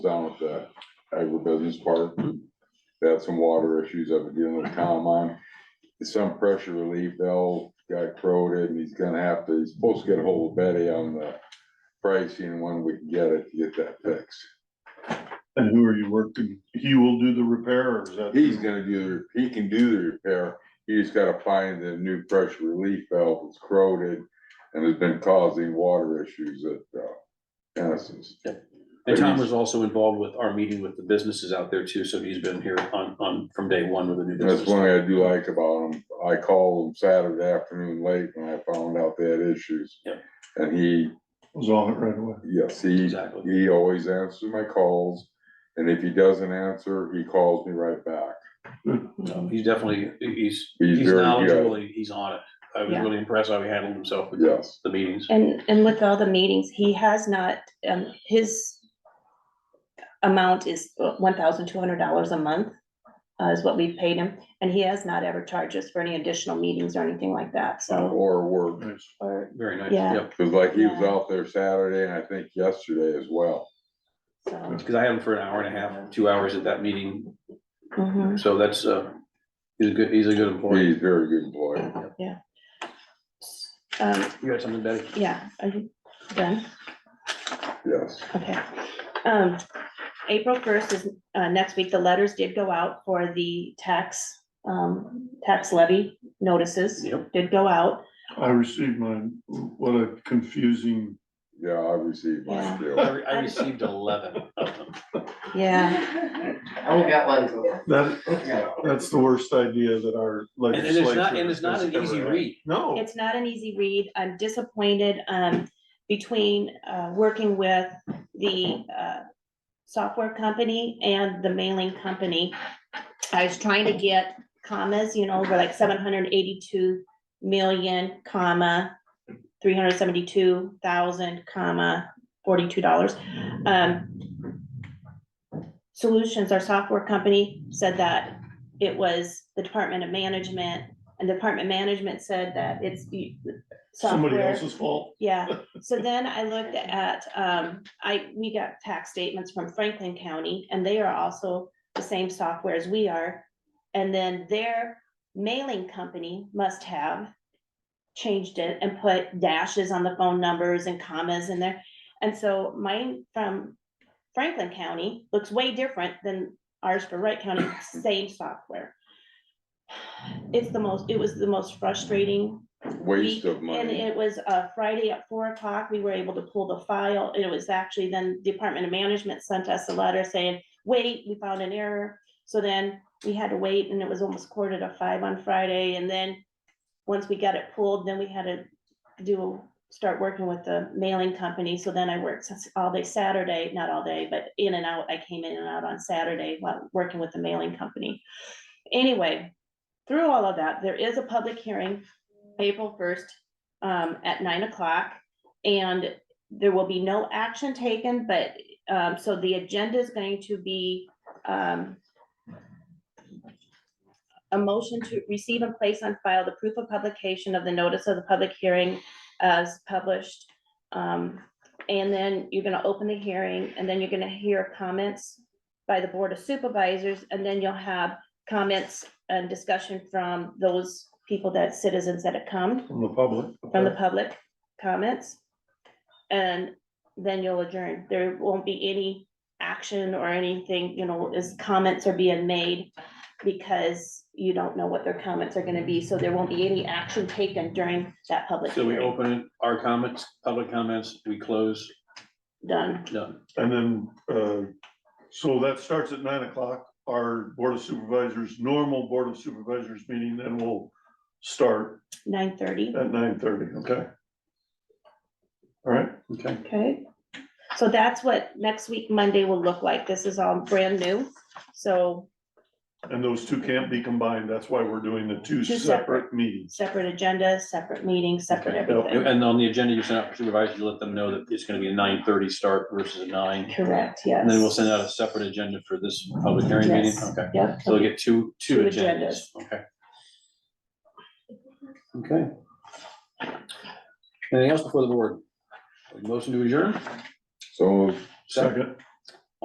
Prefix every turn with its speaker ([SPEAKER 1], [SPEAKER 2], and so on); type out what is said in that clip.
[SPEAKER 1] his part. They had some water issues up at the end of the town line. Some pressure relief valve got corroded and he's gonna have to, he's supposed to get a hold of Betty on the pricing and when we can get it, to get that fixed.
[SPEAKER 2] And who are you working, he will do the repair or is that?
[SPEAKER 1] He's gonna do, the he can do the repair, he just gotta find the new pressure relief valve that's corroded and has been causing water issues at, uh, Genesis.
[SPEAKER 3] And Tom was also involved with our meeting with the businesses out there too, so he's been here on, on, from day one with the new
[SPEAKER 1] And That's one
[SPEAKER 3] business.
[SPEAKER 1] thing I do like about him, I called him Saturday afternoon late when I found out they had issues.
[SPEAKER 3] Yeah.
[SPEAKER 1] And he,
[SPEAKER 2] Was on it right away.
[SPEAKER 1] yes, he,
[SPEAKER 3] Exactly.
[SPEAKER 1] he always answers my calls, and if he doesn't answer, he calls me right back.
[SPEAKER 3] So He's definitely, he's,
[SPEAKER 1] He's
[SPEAKER 3] he's
[SPEAKER 1] very good.
[SPEAKER 3] knowledgeable, he- he's on it. I was
[SPEAKER 4] Yeah.
[SPEAKER 3] really impressed how he handled himself with
[SPEAKER 1] Yes.
[SPEAKER 3] the meetings.
[SPEAKER 4] And, and with all the meetings, he has not, um, his amount is one thousand two hundred dollars a month uh, is what we've paid him, and he has not ever charged us for any additional meetings or anything like that, so,
[SPEAKER 1] Or work,
[SPEAKER 2] Nice.
[SPEAKER 4] or,
[SPEAKER 3] Very nice,
[SPEAKER 4] Yeah.
[SPEAKER 3] yep.
[SPEAKER 1] cause like he was
[SPEAKER 4] Yeah.
[SPEAKER 1] out there Saturday and I think yesterday as well.
[SPEAKER 4] so.
[SPEAKER 3] Cause I had him for an hour and a half, two hours at that meeting,
[SPEAKER 4] mhm.
[SPEAKER 3] so that's, uh, he's a good, he's a good employee.
[SPEAKER 1] He's a very good employee.
[SPEAKER 4] Um,
[SPEAKER 3] You had something, Betty?
[SPEAKER 4] yeah, are you done?
[SPEAKER 1] Yes,
[SPEAKER 4] Okay. Um, April first is, uh, next week, the letters did go out for the tax, um, tax levy notices,
[SPEAKER 3] Yep,
[SPEAKER 4] did go out.
[SPEAKER 2] I received mine, what a confusing,
[SPEAKER 1] yeah, I received mine too.
[SPEAKER 3] I re- I received eleven of them.
[SPEAKER 4] Yeah,
[SPEAKER 5] I only got one total.
[SPEAKER 2] that,
[SPEAKER 5] Yeah.
[SPEAKER 2] that's the worst idea that our
[SPEAKER 3] And
[SPEAKER 2] legislature.
[SPEAKER 3] and it's not, and it's not
[SPEAKER 2] has
[SPEAKER 3] an easy
[SPEAKER 2] ever had.
[SPEAKER 3] read.
[SPEAKER 2] No,
[SPEAKER 4] It's not an easy read. I'm disappointed, um, between, uh, working with the, uh, software company and the mailing company. I was trying to get commas, you know, we're like seven hundred eighty-two million, comma, three hundred seventy-two thousand, comma, forty-two dollars. Um, Solutions, our software company, said that it was the Department of Management and Department Management said that it's the
[SPEAKER 2] somebody
[SPEAKER 4] software.
[SPEAKER 2] else's fault.
[SPEAKER 4] Yeah, so then I looked at, um, I, we got tax statements from Franklin County and they are also the same software as we are. And then their mailing company must have changed it and put dashes on the phone numbers and commas in there. And so mine from Franklin County looks way different than ours for Wright County, same software. It's the most, it was the most frustrating
[SPEAKER 1] Waste of
[SPEAKER 4] week, And
[SPEAKER 1] money.
[SPEAKER 4] it was uh Friday at four o'clock, we were able to pull the file, and it was actually then Department of Management sent us a letter saying, wait, we found an error. So then we had to wait, and it was almost quarter to five on Friday, and then, once we got it pulled, then we had to do, start working with the mailing company, so then I worked s- all day Saturday, not all day, but in and out, I came in and out on Saturday while working with the mailing company. Anyway, through all of that, there is a public hearing, April first, um, at nine o'clock. And there will be no action taken, but, um, so the agenda is going to be, um, a motion to receive and place on file the proof of publication of the notice of the public hearing as published. Um, and then you're gonna open the hearing, and then you're gonna hear comments by the Board of Supervisors, and then you'll have comments and discussion from those people that, citizens that have come
[SPEAKER 2] From the public.
[SPEAKER 4] from the public comments. And then you'll adjourn. There won't be any action or anything, you know, as comments are being made because you don't know what their comments are gonna be, so there won't be any action taken during that public
[SPEAKER 3] So we
[SPEAKER 4] hearing.
[SPEAKER 3] open our comments, public comments, we close,
[SPEAKER 4] Done.
[SPEAKER 3] done.
[SPEAKER 2] And then, uh, so that starts at nine o'clock, our Board of Supervisors, normal Board of Supervisors meeting, then we'll start
[SPEAKER 4] Nine thirty,
[SPEAKER 3] Uh,
[SPEAKER 2] at nine thirty, okay? All right,
[SPEAKER 3] Okay,
[SPEAKER 4] okay? So that's what next week, Monday will look like. This is all brand new, so
[SPEAKER 2] and those two can't be combined, that's why we're doing the two
[SPEAKER 4] Two
[SPEAKER 2] separate meetings.
[SPEAKER 4] separate agendas, separate meetings, separate
[SPEAKER 3] Okay.
[SPEAKER 4] everything.
[SPEAKER 3] and on the agenda you sent out for supervisors, you let them know that it's gonna be a nine thirty start versus a nine.
[SPEAKER 4] Correct, yes.
[SPEAKER 3] And then we'll send out a separate agenda for this public hearing meeting,
[SPEAKER 4] Yes.
[SPEAKER 3] okay,
[SPEAKER 4] Yep.
[SPEAKER 3] so we'll get two, two
[SPEAKER 4] Two
[SPEAKER 3] agendas, okay. Okay. Anything else before the board? Motion to adjourn?
[SPEAKER 1] So
[SPEAKER 2] Second,